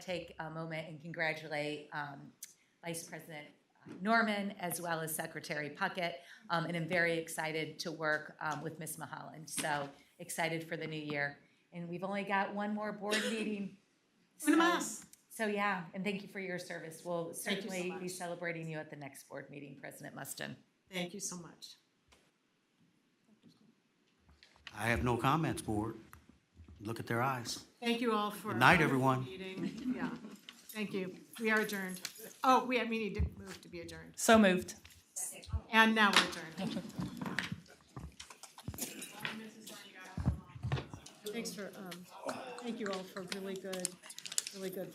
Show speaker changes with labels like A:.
A: take a moment and congratulate um, Vice President Norman as well as Secretary Puckett. Um, And I'm very excited to work um, with Ms. Mahalan. So excited for the new year. And we've only got one more board meeting.
B: Una
A: So-
B: más.
A: So, yeah, and thank you for your service. We'll
B: Thank you so
A: certainly be
B: much.
A: celebrating you at the next board meeting, President Mustin.
B: Thank you so much.
C: I have no comments, board. Look at their eyes.
B: Thank you all for.
C: Good night,
B: a wonderful
C: everyone.
B: Meeting, yeah. Thank you. We are adjourned. Oh, we, we need to move to be adjourned.
D: So moved.
B: And now we're adjourned. Thanks for, um, thank you all for really good, really good